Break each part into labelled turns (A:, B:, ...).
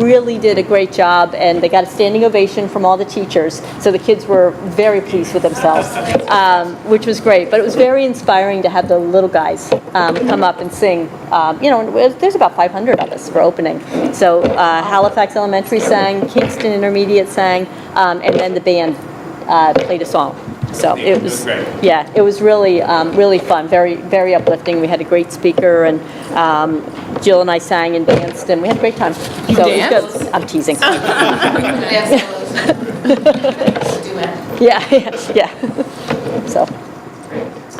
A: really did a great job, and they got a standing ovation from all the teachers. So the kids were very pleased with themselves, um, which was great. But it was very inspiring to have the little guys um, come up and sing. Um, you know, and it- there's about 500 of us for opening. So uh, Halifax Elementary sang, Kingston Intermediate sang, um, and then the band uh, played a song. So it was,
B: Great.
A: yeah, it was really, um, really fun, very, very uplifting. We had a great speaker, and um, Jill and I sang and danced, and we had a great time. You
C: danced?
A: I'm teasing.
C: Duet.
A: Yeah, yeah, yeah. So,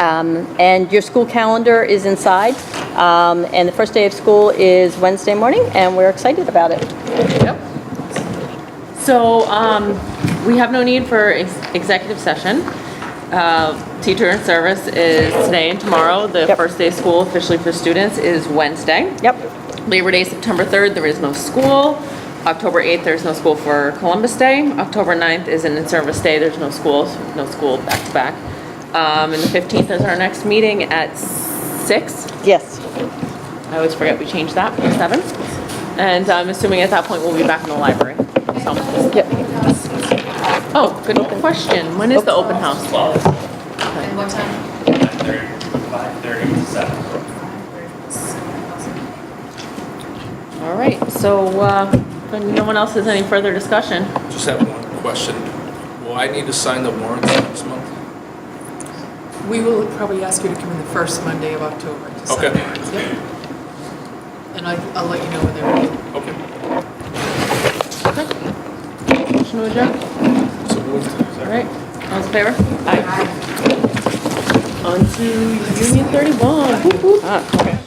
A: um, and your school calendar is inside, um, and the first day of school is Wednesday morning, and we're excited about it.
C: So, um, we have no need for ex- executive session. Uh, Teacher in service is today and tomorrow. The
A: Yep.
C: first day of school officially for students is Wednesday.
A: Yep,
C: Labor Day, September 3rd, there is no school. October 8th, there's no school for Columbus Day. October 9th is an in-service day, there's no schools, no school back-to-back. Um, And the 15th is our next meeting at 6.
A: yes.
C: I always forget we changed that from 7. And I'm assuming at that point, we'll be back in the library. So-
A: Yep.
C: Oh, good question. When is the open house?
B: Twelve,
D: And what time?
B: nine thirty, five thirty to seven.
C: All right, so uh, if no one else has any further discussion,
E: Just have one question. Will I need to sign the warrants this month?
F: We will probably ask you to come in the first Monday of October. to sign
E: Okay.
F: warrants, yep. And I- I'll let you know when they're ready.
E: Okay.
C: motion to adjourn?
E: So moved.
C: All right, all in favor? Aye. On to Union 31. Ah, okay.